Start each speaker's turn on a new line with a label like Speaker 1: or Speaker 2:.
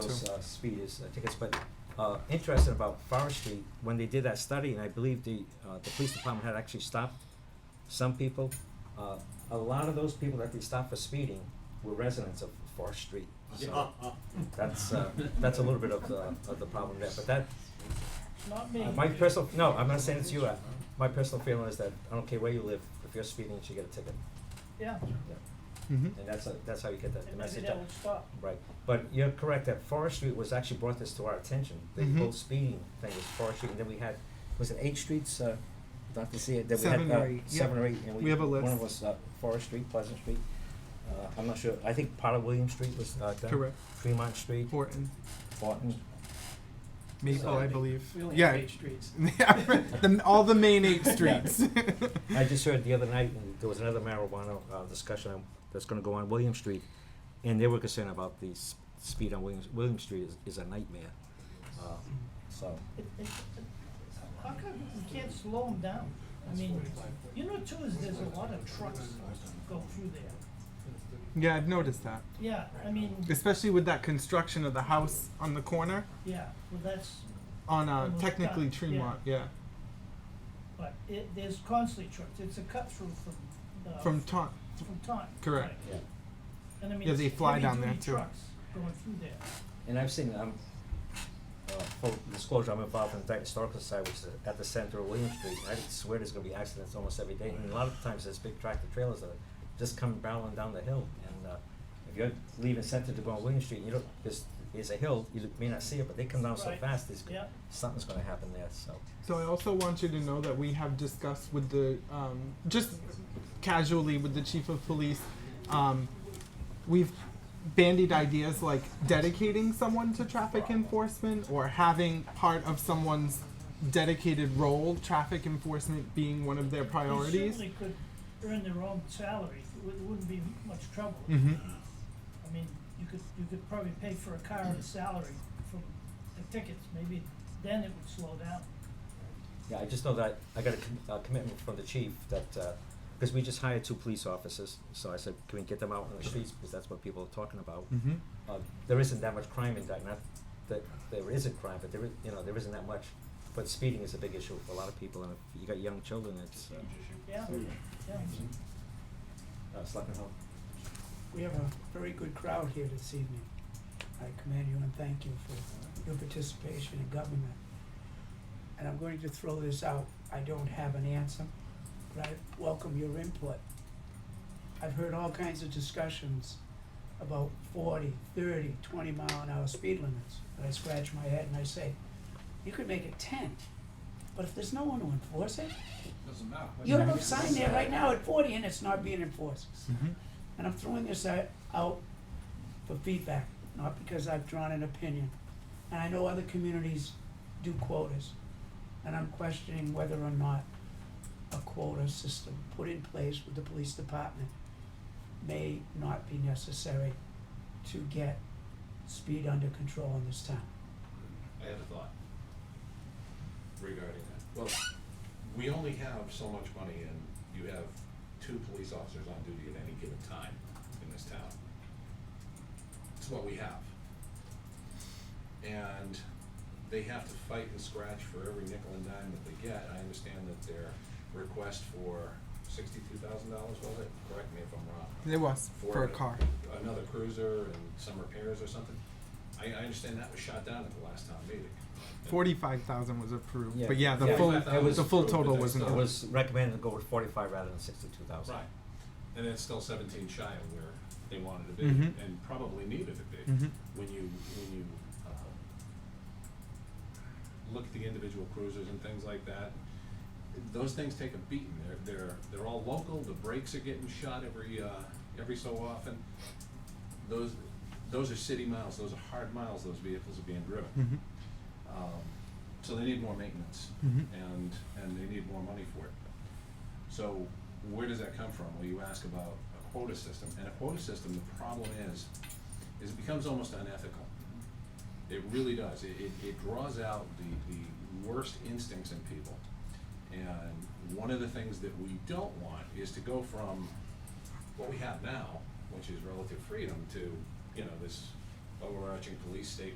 Speaker 1: those, uh, speed is, I think it's, but, uh, interesting about forestry, when they did that study, and I believe the, uh, the police department had actually stopped some people, uh, a lot of those people that they stopped for speeding were residents of Forest Street, so that's, uh, that's a little bit of the, of the problem there, but that,
Speaker 2: Not me.
Speaker 1: uh, my personal, no, I'm not saying it's you, uh, my personal feeling is that, I don't care where you live, if you're speeding, you should get a ticket,
Speaker 2: Yeah,
Speaker 1: yeah,
Speaker 3: Mhm.
Speaker 1: and that's, a- that's how you get the, the
Speaker 2: and maybe
Speaker 1: message out.
Speaker 2: that would stop.
Speaker 1: Right, but you're correct that Forest Street was actually brought this to our attention. The
Speaker 3: Mhm.
Speaker 1: whole speeding thing was Forest Street, and then we had, was it eight streets, uh, Dr. C, that we had,
Speaker 3: Seven or
Speaker 1: uh,
Speaker 3: eight, yeah.
Speaker 1: seven or eight, and we,
Speaker 3: We have a
Speaker 1: one
Speaker 3: list.
Speaker 1: was, uh, Forest Street, Pleasant Street. Uh, I'm not sure, I think part of William Street was, uh, done.
Speaker 3: Correct.
Speaker 1: Fremont Street,
Speaker 3: Horton,
Speaker 1: Barton,
Speaker 3: Maple, oh, I believe.
Speaker 2: We only
Speaker 3: yeah,
Speaker 2: have eight streets.
Speaker 3: yeah, the, all the main eight streets.
Speaker 1: I just heard the other night, and there was another marijuana uh, discussion on- that's gonna go on William Street, and they were concerned about the s- speed on Williams, William Street is, is a nightmare. Uh, So,
Speaker 2: It- it- it- How come we can't slow them down? I mean, you know too, is there's a lot of trucks go through there.
Speaker 3: yeah, I've noticed that,
Speaker 2: Yeah, I mean,
Speaker 3: especially with that construction of the house on the corner
Speaker 2: yeah, well, that's,
Speaker 3: on uh,
Speaker 2: Almost
Speaker 3: technically
Speaker 2: done,
Speaker 3: Tremont. Yeah,
Speaker 2: but it, there's constantly trucks. It's a cut through from, uh,
Speaker 3: from Taunt.
Speaker 2: From time.
Speaker 3: Correct.
Speaker 1: yeah.
Speaker 2: And I mean,
Speaker 3: Yeah, they
Speaker 2: it's
Speaker 3: fly down
Speaker 2: heavy-duty
Speaker 3: there, too.
Speaker 2: trucks going through there.
Speaker 1: And I've seen, um, uh, full disclosure, I'm involved in the Dyton Historical Society, which is at the center of William Street, and I swear there's gonna be accidents almost every day, and a lot of times there's big tractor trailers that are just come barreling down the hill, and, uh, if you're leaving center to go on William Street, you don't, there's, there's a hill, you may not see it, but they come down so
Speaker 2: Right.
Speaker 1: fast, there's,
Speaker 2: Yeah.
Speaker 1: something's gonna happen there, so.
Speaker 3: So I also want you to know that we have discussed with the um, just casually with the chief of police. Um, we've bandied ideas like dedicating someone to traffic enforcement or having part of someone's dedicated role, traffic enforcement being one of their
Speaker 2: They
Speaker 3: priorities.
Speaker 2: certainly could earn their own salary. It wou- wouldn't be much trouble.
Speaker 3: Mhm.
Speaker 2: I mean, you could, you could probably pay for a car and a salary from the tickets, maybe then it would slow down.
Speaker 1: Yeah, I just know that I got a com- uh, commitment from the chief that, uh 'cause cause we just hired two police officers, so I said, can we get them out on the streets, because that's what people are talking about.
Speaker 3: Mm-hmm.
Speaker 1: uh, there isn't that much crime in Dayton. Not that there isn't crime, but there is, you know, there isn't that much. But speeding is a big issue for a lot of people, and if you got young children, it's uh,
Speaker 2: Yeah, yeah.
Speaker 1: uh, Selectman Hull.
Speaker 4: We have a very good crowd here this evening. I commend you and thank you for your participation in government. And I'm going to throw this out. I don't have an answer, but I welcome your input. I've heard all kinds of discussions about 40, 30, 20 mile an hour speed limits. But I scratch my head and I say, you could make it ten, but if there's no one to enforce it,
Speaker 5: Doesn't matter.
Speaker 4: you have a sign there right now at forty and it's not being enforced.
Speaker 3: Mhm.
Speaker 4: And I'm throwing this out, out for feedback, not because I've drawn an opinion. And I know other communities do quotas, and I'm questioning whether or not a quota system put in place with the police department may not be necessary to get speed under control in this town.
Speaker 5: I had a thought regarding that. Well, we only have so much money and you have two police officers on duty at any given time in this town. It's what we have. And they have to fight and scratch for every nickel and dime that they get. I understand that their request for sixty-two thousand dollars, was it? Correct me if I'm wrong.
Speaker 3: It was for a car.
Speaker 5: Another cruiser and some repairs or something. I, I understand that was shot down at the last town meeting.
Speaker 3: Forty-five thousand was approved,
Speaker 1: Yeah.
Speaker 3: but yeah, the
Speaker 1: Yeah.
Speaker 3: full
Speaker 5: It was
Speaker 3: the full
Speaker 5: approved,
Speaker 3: total
Speaker 5: but
Speaker 3: wasn't.
Speaker 5: that's
Speaker 1: It
Speaker 5: not-
Speaker 1: was recommended to go with forty-five rather than sixty-two thousand.
Speaker 5: Right. And it's still seventeen shy of where they wanted to be
Speaker 3: Mhm.
Speaker 5: and probably needed to be.
Speaker 3: Mhm.
Speaker 5: When you, when you, um, look at the individual cruisers and things like that, those things take a beating. They're, they're, they're all local. The brakes are getting shot every, uh, every so often. Those, those are city miles. Those are hard miles those vehicles are being driven.
Speaker 3: Mhm.
Speaker 5: Um, so they need more maintenance
Speaker 3: Mhm.
Speaker 5: and, and they need more money for it. So where does that come from? Well, you ask about a quota system, and a quota system, the problem is, is it becomes almost unethical. It really does. It, it, it draws out the, the worst instincts in people. And one of the things that we don't want is to go from what we have now, which is relative freedom, to, you know, this overarching police state